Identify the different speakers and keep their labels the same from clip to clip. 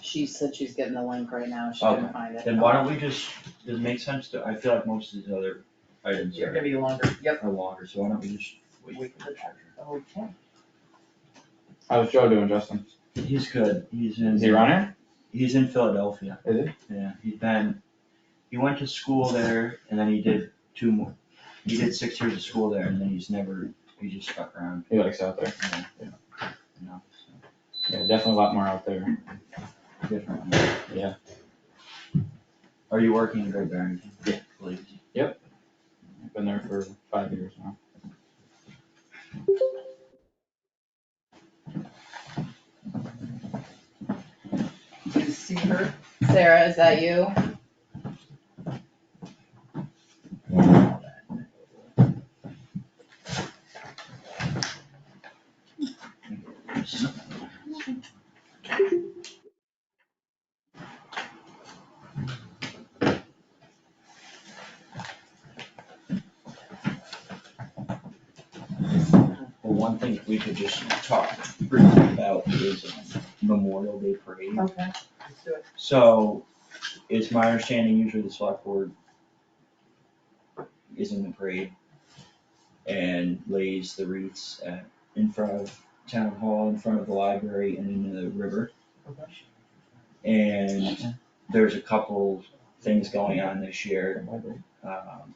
Speaker 1: she said she's getting the link right now, she
Speaker 2: Okay.
Speaker 1: couldn't find it.
Speaker 2: Then why don't we just, does it make sense to, I feel like most of these other items
Speaker 3: They're
Speaker 2: are,
Speaker 3: gonna be longer, yep. oh,
Speaker 2: are longer, so why don't we just wait
Speaker 3: Wait
Speaker 2: for the treasurer?
Speaker 3: Okay.
Speaker 4: How's Joe doing, Justin?
Speaker 2: He's good, he's in.
Speaker 4: Is he running?
Speaker 2: He's in Philadelphia,
Speaker 4: Is he?
Speaker 2: yeah, he's been, he went to school there and then he did two more, he did six years of school there and then he's never, he just stuck around,
Speaker 4: He likes out there.
Speaker 2: you know, so.
Speaker 4: Yeah, definitely a lot more out there.
Speaker 2: Different.
Speaker 4: Yeah.
Speaker 2: Are you working in Great Barrington?
Speaker 4: Yeah.
Speaker 2: Please.
Speaker 4: Been there for five years now.
Speaker 3: Did you see her?
Speaker 1: Sarah, is that you?
Speaker 2: Well, one thing we could just talk briefly about is um, Memorial Day Parade.
Speaker 3: Okay. Let's do it.
Speaker 2: So, it's my understanding usually the select board is in the parade and lays the wreaths at, in front of town hall, in front of the library and in the river. And there's a couple things going on this year um,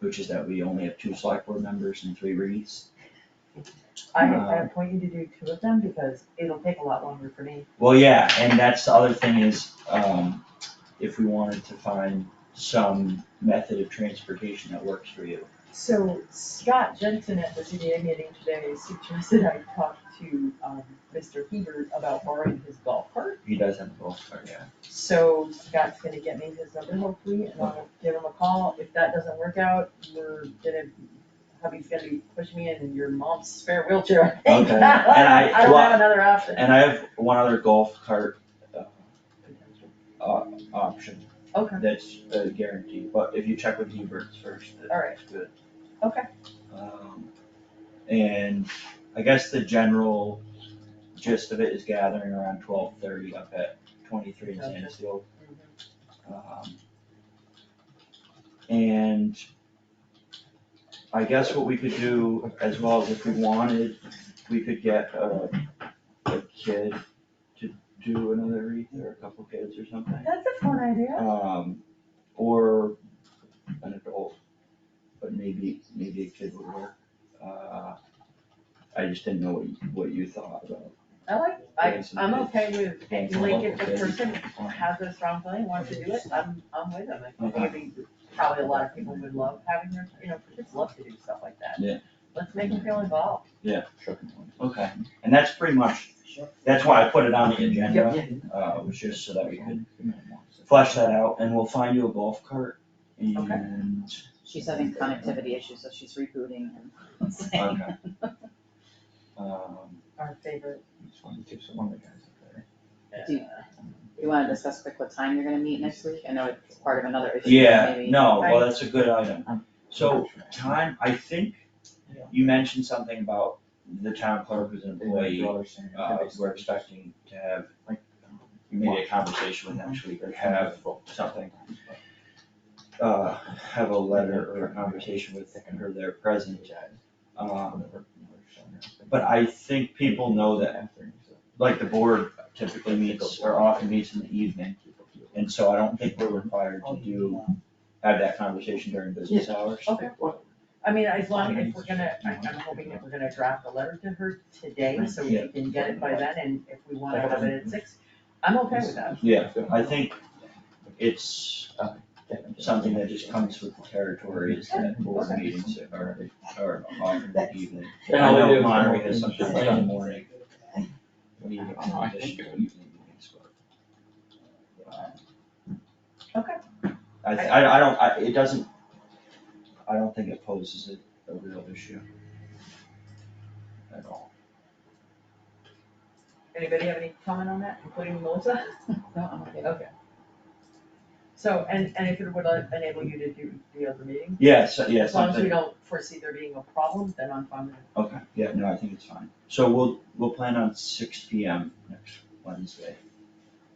Speaker 2: which is that we only have two select board members and three reads.
Speaker 3: I, I appoint you to do two of them because it'll take a lot longer for me.
Speaker 2: Well, yeah, and that's the other thing is, um, if we wanted to find some method of transportation that works for you.
Speaker 3: So Scott Jensen at the CDA meeting today suggested I talk to, um, Mr. Hebert about borrowing his golf cart.
Speaker 2: He does have a golf cart, yeah.
Speaker 3: So Scott's gonna get me his number hopefully, and I'll give him a call. If that doesn't work out, we're gonna, hubby's gonna be pushing me in your mom's spare wheelchair. I think.
Speaker 2: Okay, and I-
Speaker 3: I don't have
Speaker 2: well-
Speaker 3: another option.
Speaker 2: And I have one other golf cart uh, o- option
Speaker 3: Okay,
Speaker 2: that's a guarantee, but if you check with Hebert's first,
Speaker 3: Alright.
Speaker 2: that's good.
Speaker 3: Okay.
Speaker 2: Um, and I guess the general gist of it is gathering around twelve thirty up at twenty-three in
Speaker 3: Gotcha.
Speaker 2: Sandusky. Um, and I guess what we could do as well is if we wanted, we could get a, a kid to do another wreath or a couple kids or something.
Speaker 3: that's a fun idea.
Speaker 2: Um, or an adult, but maybe, maybe a kid would work. Uh, I just didn't know what, you- what you thought about.
Speaker 3: I like, I,
Speaker 2: doing some
Speaker 3: I'm
Speaker 2: kids.
Speaker 3: okay with,
Speaker 2: Thank you.
Speaker 3: like, if the person has a strong feeling, wants to do it, I'm, I'm with them. I think maybe, probably a lot of people would love having their, you know, kids love to do stuff like that.
Speaker 2: Yeah.
Speaker 3: Let's make them feel involved.
Speaker 4: Sure.
Speaker 2: Okay, and that's pretty much,
Speaker 3: Sure.
Speaker 2: that's why I put it on the agenda,
Speaker 3: Yep.
Speaker 2: uh, was just so that we could flesh that out and we'll find you a golf cart and.
Speaker 1: She's having connectivity issues, so she's rebooting and saying,
Speaker 2: Okay. Um,
Speaker 3: Our favorite.
Speaker 4: Just wanted to, so one of the guys up there.
Speaker 1: Do- you wanna discuss quick what time you're gonna meet next week? I know it's part of another issue,
Speaker 2: Yeah,
Speaker 1: maybe.
Speaker 2: no, well,
Speaker 3: Right.
Speaker 2: that's a good item. So time, I think
Speaker 3: Yeah.
Speaker 2: you mentioned something about the town clerk as an employee. Uh, we're
Speaker 4: We're
Speaker 2: expecting to have maybe a conversation with next week or have something. Uh, have a letter or a conversation with her there present. Um, but I think people know that, like the board typically meets or often meets in the evening. And so I don't think we're required to do, have that conversation during business hours.
Speaker 3: Okay. I mean, as long as we're gonna, I- I'm hoping that we're gonna draft a letter to her today, so we
Speaker 2: Yeah.
Speaker 3: can get it by then, and if we wanna have it at six, I'm okay with that.
Speaker 2: Yeah, I think it's uh, something that just comes with the territory is that board
Speaker 3: Okay.
Speaker 2: meetings are, are often in the evening.
Speaker 4: And
Speaker 2: I
Speaker 4: all they do
Speaker 2: know
Speaker 4: is-
Speaker 2: Monterey has something like in the morning. We
Speaker 4: I
Speaker 2: have
Speaker 4: don't know, I think
Speaker 2: additional evening meetings, but-
Speaker 3: Okay.
Speaker 2: I, th- I, I don't, I, it doesn't, I don't think it poses a, a real issue. At all.
Speaker 3: Anybody have any comment on that, including Melissa?
Speaker 1: No, I'm okay.
Speaker 3: Okay. So, and, and if it would uh, enable you to do the other meeting?
Speaker 2: Yeah, so, yeah,
Speaker 3: As long as we
Speaker 2: something,
Speaker 3: don't foresee there being a problem, then I'm fine with it.
Speaker 2: okay, yeah, no, I think it's fine. So we'll, we'll plan on six P M next Wednesday.